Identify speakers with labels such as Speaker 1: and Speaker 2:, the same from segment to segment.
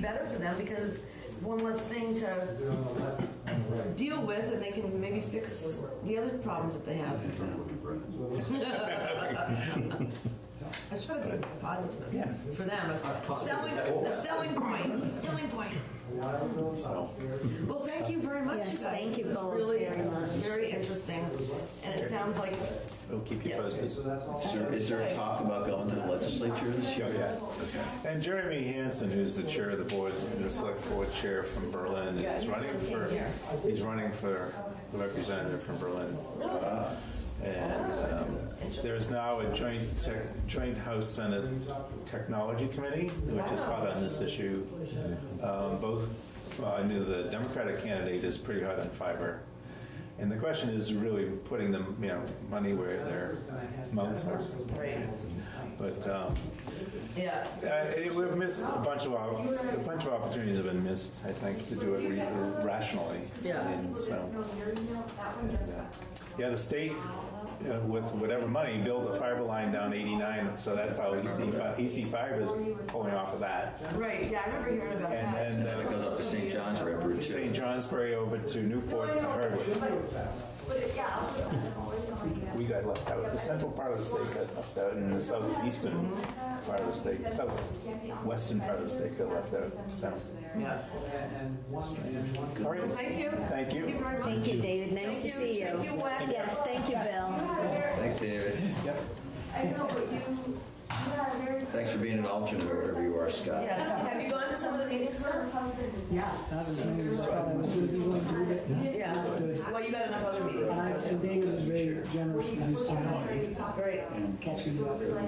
Speaker 1: better for them because one less thing to
Speaker 2: Is it on the left, on the right?
Speaker 1: deal with and they can maybe fix the other problems that they have. I try to be positive
Speaker 3: Yeah.
Speaker 1: for them. A selling, a selling point, selling point.
Speaker 2: A while ago, about there,
Speaker 1: Well, thank you very much, you guys.
Speaker 4: Yes, thank you
Speaker 1: This is
Speaker 4: both
Speaker 1: really
Speaker 4: very much.
Speaker 1: Very interesting, and it sounds like,
Speaker 5: We'll keep you
Speaker 1: Yeah.
Speaker 5: posted.
Speaker 2: so that's all.
Speaker 6: Is there- Is there talk about going to the legislature this year?
Speaker 5: Oh, Yeah. And Jeremy Hansen, who's the chair of the board, the select board chair from Berlin,
Speaker 1: Yeah,
Speaker 5: is
Speaker 1: he's
Speaker 5: running
Speaker 1: from
Speaker 5: for,
Speaker 1: here.
Speaker 5: he's running for the representative from Berlin. Uh, And um, there is now a joint, tech- joint House Senate Technology Committee, which is hot on this issue. Um, Both, well, I knew the Democratic candidate is pretty hot on fiber. And the question is really putting the, you know, money where their mouths are.
Speaker 1: right,
Speaker 5: But um,
Speaker 1: yeah.
Speaker 5: uh, it- We've missed a bunch of, op- a bunch of opportunities have been missed, I think, to do it re- rationally.
Speaker 1: Yeah.
Speaker 5: And so, and, uh, yeah, the state, uh, with whatever money, built a fiber line down 89, so that's how E EC5 EC5 is pulling off of that.
Speaker 1: Right, yeah, I remember hearing about
Speaker 5: And
Speaker 1: that.
Speaker 5: then
Speaker 6: And it
Speaker 5: uh,
Speaker 6: goes up to St. John's River too.
Speaker 5: St. Johnsbury over to Newport to Hardwick. We got left out, the central part of the state got left out, and the southeastern part of the state, southwestern part of the state got left out, so.
Speaker 1: Yeah.
Speaker 2: And one, and one.
Speaker 5: All right.
Speaker 1: Thank you.
Speaker 5: Thank
Speaker 1: Thank
Speaker 5: you.
Speaker 1: you very much.
Speaker 4: Thank you, David. Nice to
Speaker 1: Thank you.
Speaker 4: see you.
Speaker 1: Thank you, Wes.
Speaker 4: Yes, thank you, Bill.
Speaker 6: Thanks, David. Thanks for being an alternate or whatever you are, Scott.
Speaker 1: Yeah, have you gone to some of the meetings now? Yeah, well, you got enough other meetings.
Speaker 7: Uh,
Speaker 1: to
Speaker 7: And
Speaker 1: go
Speaker 7: David is very generous in his
Speaker 1: to.
Speaker 7: time,
Speaker 1: Great.
Speaker 7: catching up. And those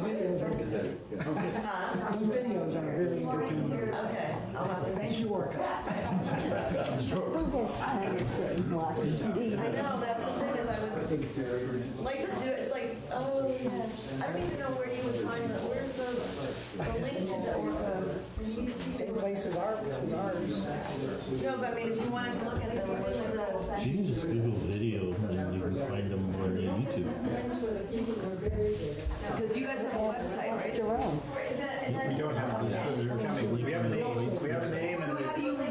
Speaker 7: videos are good.
Speaker 1: Huh?
Speaker 7: Those videos are really entertaining.
Speaker 1: Okay, I'll have to.
Speaker 7: Thank you, work.
Speaker 4: Who has time to sit and watch TV?
Speaker 1: I know, that's the thing is I would like to do, it. it's like, oh, yes, I don't even know where you would find the, where's the, the link to the orca?
Speaker 7: Same place as ours, as ours.
Speaker 1: No, but I mean, if you wanted to look at them, what's the,
Speaker 8: You can just Google video and you can find them on YouTube.
Speaker 1: because you guys have a website, right?
Speaker 7: Jerome.
Speaker 5: We don't have, we have a name, we have a name and
Speaker 1: So how do you, oh,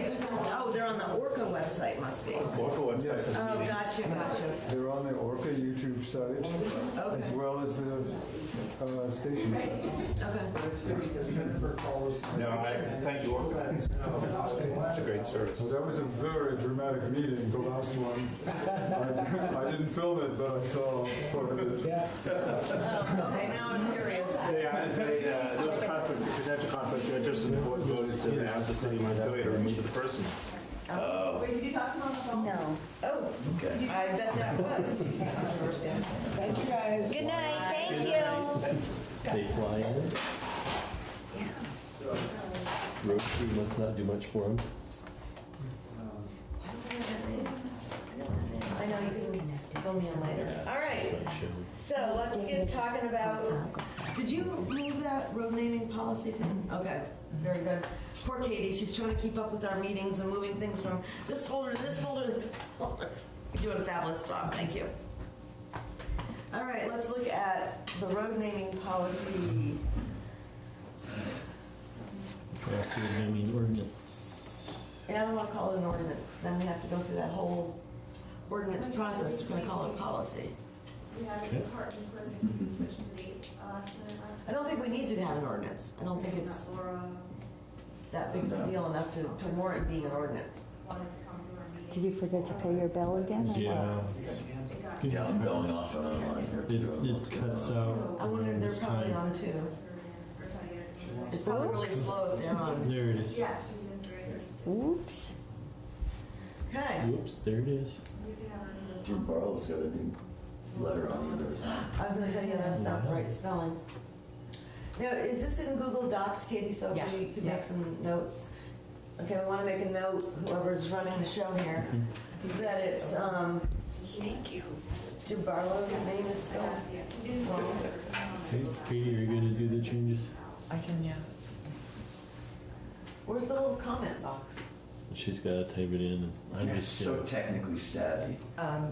Speaker 1: they're on the Orca website, must be. Oh,
Speaker 5: local website.
Speaker 1: gotcha, gotcha.
Speaker 9: They're on the Orca YouTube site, as
Speaker 1: Okay,
Speaker 9: well as the uh, station site.
Speaker 1: okay.
Speaker 2: It's good because Jennifer calls.
Speaker 5: No, I thank you, Orca. It's a great service.
Speaker 9: Well, that was a very dramatic meeting, the last one. I I didn't film it, but I saw part of it.
Speaker 7: Yeah.
Speaker 1: Okay, now I'm curious.
Speaker 5: Yeah, they, uh, there was a conflict, a potential conflict of interest and the board voted to ask the city of Montpelier to remove the person.
Speaker 4: No.
Speaker 1: Oh,
Speaker 6: Okay.
Speaker 1: I bet that was.
Speaker 7: Thank you, guys.
Speaker 4: Good night, thank you.
Speaker 8: They fly in it. Road crew must not do much for them.
Speaker 1: I know, you can fill me in later. All right, so let's get talking about, did you move that road naming policy thing? Okay, very good. Poor Katie, she's trying to keep up with our meetings and moving things from this folder to this folder to this folder. You're doing a fabulous job, thank you. All right, let's look at the road naming policy.
Speaker 8: Drafted, I mean, ordinance.
Speaker 1: And I don't want to call it an ordinance, then we have to go through that whole ordinance process, we're gonna call it a policy.
Speaker 10: Yeah, it's hard in person, we switched the date uh, last minute last.
Speaker 1: I don't think we need to have an ordinance. I don't think it's
Speaker 10: Laura
Speaker 1: that big of a deal enough to, to warrant being an ordinance.
Speaker 10: wanted to come to our meeting.
Speaker 4: Did you forget to pay your bill again? or what?
Speaker 8: Yeah,
Speaker 10: It got-
Speaker 6: Yeah, I'm going off and online here
Speaker 8: it,
Speaker 6: too.
Speaker 8: it cuts out.
Speaker 1: I wonder if
Speaker 8: around
Speaker 1: they're
Speaker 8: this
Speaker 1: probably
Speaker 8: time.
Speaker 1: on too.
Speaker 10: We're trying to get it.
Speaker 1: It's probably really slow if they're on. um,
Speaker 8: There it is.
Speaker 10: Yeah, she was in three, or just-
Speaker 4: Oops.
Speaker 1: Okay,
Speaker 8: Whoops, there it is.
Speaker 10: we could have her in the-
Speaker 6: Jim Barlow's got a new letter on the other side.
Speaker 1: I was gonna say, yeah, that's not the right spelling. Now, is this in Google Docs, Katie, so if we could make some notes? Okay, we wanna make a note, whoever's running the show here, that it's, um,
Speaker 10: Thank you.
Speaker 1: Jim Barlow's name is spelled
Speaker 10: Yeah, we didn't
Speaker 1: wrong.
Speaker 8: Okay, Katie, are you gonna do the changes?
Speaker 1: Where's the little comment box?
Speaker 8: She's gotta type it in. I'm
Speaker 6: You're
Speaker 8: just
Speaker 6: so
Speaker 8: kidding.
Speaker 6: technically savvy.
Speaker 1: Um,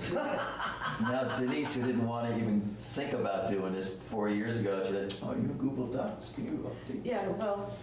Speaker 6: Now Denise, who didn't want to even think about doing this four years ago, she said, oh, you Google Docs, can you update?
Speaker 1: Yeah, well,